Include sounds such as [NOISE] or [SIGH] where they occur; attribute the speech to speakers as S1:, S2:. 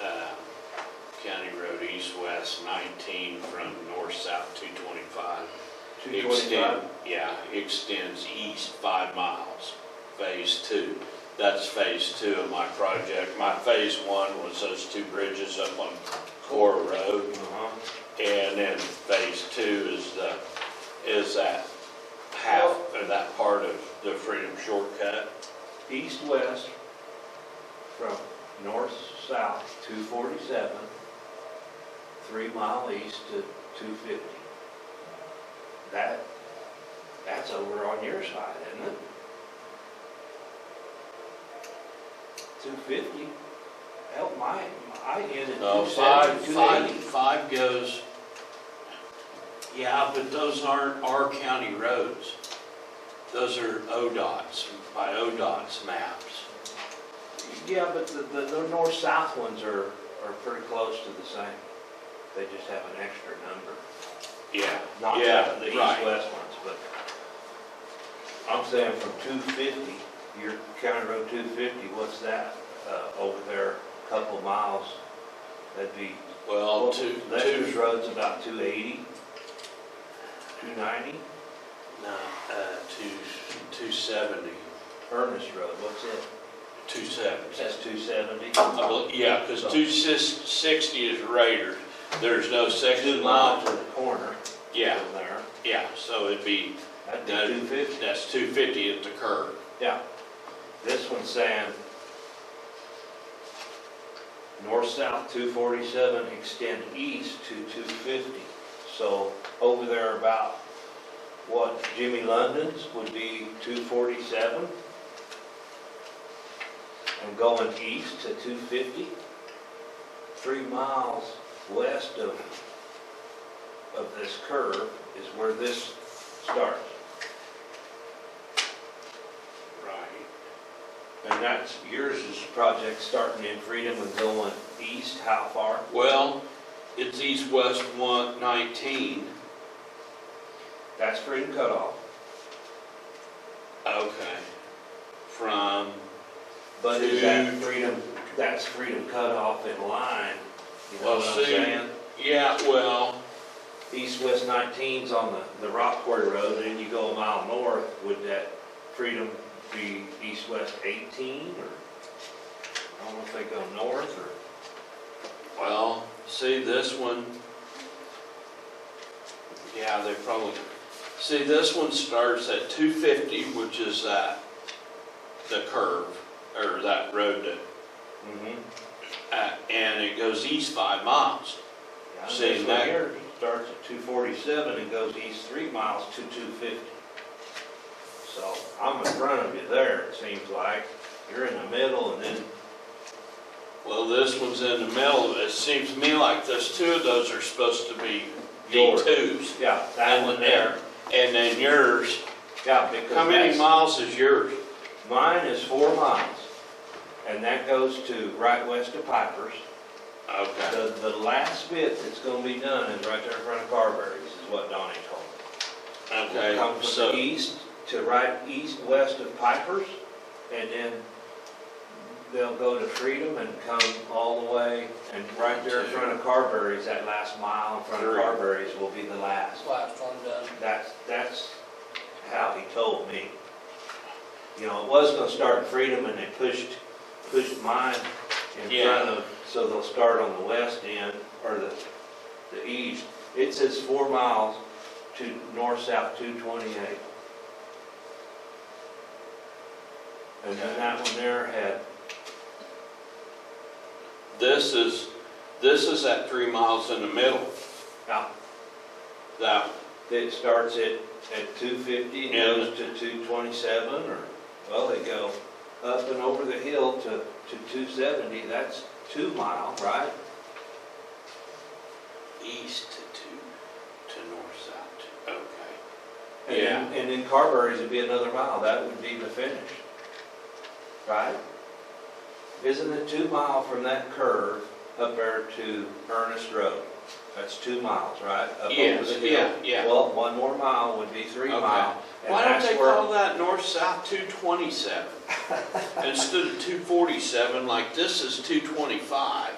S1: um, east-west, 19 from north-south 225.
S2: Two twenty-five?
S1: Extend- Yeah, extends east five miles, phase two. That's phase two of my project. My phase one was those two bridges up on Core Road.
S2: Uh-huh.
S1: And then phase two is the, is that half, or that part of the Freedom Shortcut.
S2: East-west from north-south, two forty-seven, three mile east to two fifty. That, that's over on your side, isn't it? Two fifty, help my, I end at
S1: No, Uh,
S2: two
S1: five,
S2: seventy, two
S1: five,
S2: eighty.
S1: five goes, yeah, but those aren't our county roads. Those are ODOT's, by ODOT's maps.
S2: Yeah, but the, the, the north-south ones are, are pretty close to the same. They just have an extra number.
S1: Yeah,
S2: not
S1: yeah,
S2: the the
S1: right.
S2: east-west ones, but I'm saying from 250, your County Road 250, what's that, uh, over there, a couple miles? That'd be,
S1: Well, Oh, two,
S2: Lexus
S1: two,
S2: Road's about 280, 290,
S1: no, uh, two, two seventy,
S2: Ernest Road, what's it?
S1: two seventy.
S2: That's 270.
S1: I bel- Yeah, because two sis- sixty is Raider. There's no section
S2: Two miles
S1: line.
S2: to the corner
S1: Yeah,
S2: from there,
S1: yeah, so it'd be,
S2: that'd be
S1: No.
S2: 250.
S1: that's two fifty at the curb.
S2: Yeah, this one's saying north-south 247, extend east to 250. So over there about, what, Jimmy London's would be 247? And going east to 250? Three miles west of, of this curve is where this starts.
S1: Right.
S2: And that's, yours is project starting in Freedom and going east, how far?
S1: Well, it's east-west one nineteen.
S2: That's Freedom cutoff.
S1: Okay. From,
S2: But is that
S1: Two.
S2: Freedom, that's Freedom cutoff in line, you know
S1: Well,
S2: what I'm
S1: see-
S2: saying?
S1: yeah, well,
S2: East-west 19's on the, the Rockport Road, and you go a mile north, would that Freedom be east-west 18, or? I don't know if they go north, or,
S1: well, see this one. Yeah, they probably, see, this one starts at two fifty, which is that, the curve, or that road that
S2: mm-hmm.
S1: uh, and it goes east five miles. See,
S2: This
S1: that-
S2: one here starts at 247 and goes east three miles to 250. So I'm in front of you there, it seems like. You're in the middle and then,
S1: Well, this one's in the middle, it seems to me like those two of those are supposed to be D
S2: Yours.
S1: twos.
S2: yeah, that one there.
S1: And then yours,
S2: Yeah, because
S1: how many
S2: that's-
S1: miles is yours?
S2: Mine is four miles. And that goes to right west of Pipers.
S1: Okay,
S2: The, the last bit that's gonna be done is right there in front of Carberry's, is what Donnie told me.
S1: okay,
S2: Come from the
S1: so,
S2: east to right east, west of Pipers, and then they'll go to Freedom and come all the way, and right there in front of Carberry's, that last mile in front of
S1: Three.
S2: Carberry's will be the last.
S3: Last one done.
S2: That's, that's how he told me. You know, it was gonna start in Freedom, and they pushed, pushed mine in
S1: Yeah.
S2: front of, so they'll start on the west end, or the, the east. It says four miles to north-south two twenty-eight. And then that one there had,
S1: this is, this is at three miles in the middle,
S2: now,
S1: that,
S2: it starts at, at two fifty and
S1: Yeah.
S2: goes to two twenty-seven, or, well, they go up and over the hill to, to two seventy, that's two mile, right?
S1: east to, to north, south, to- okay.
S2: And then- And then Carberry's would be another mile, that would be the finish, right? Isn't it two mile from that curve up there to Ernest Road? That's two miles, right? Up over
S1: Yes,
S2: the hill.
S1: yeah, yeah.
S2: Well, one more mile would be three
S1: Okay.
S2: mile. and
S1: Why don't
S2: that's
S1: they
S2: where-
S1: call that north-south two
S2: [LAUGHS]
S1: twenty-seven? Instead of two forty-seven, like this is two twenty-five.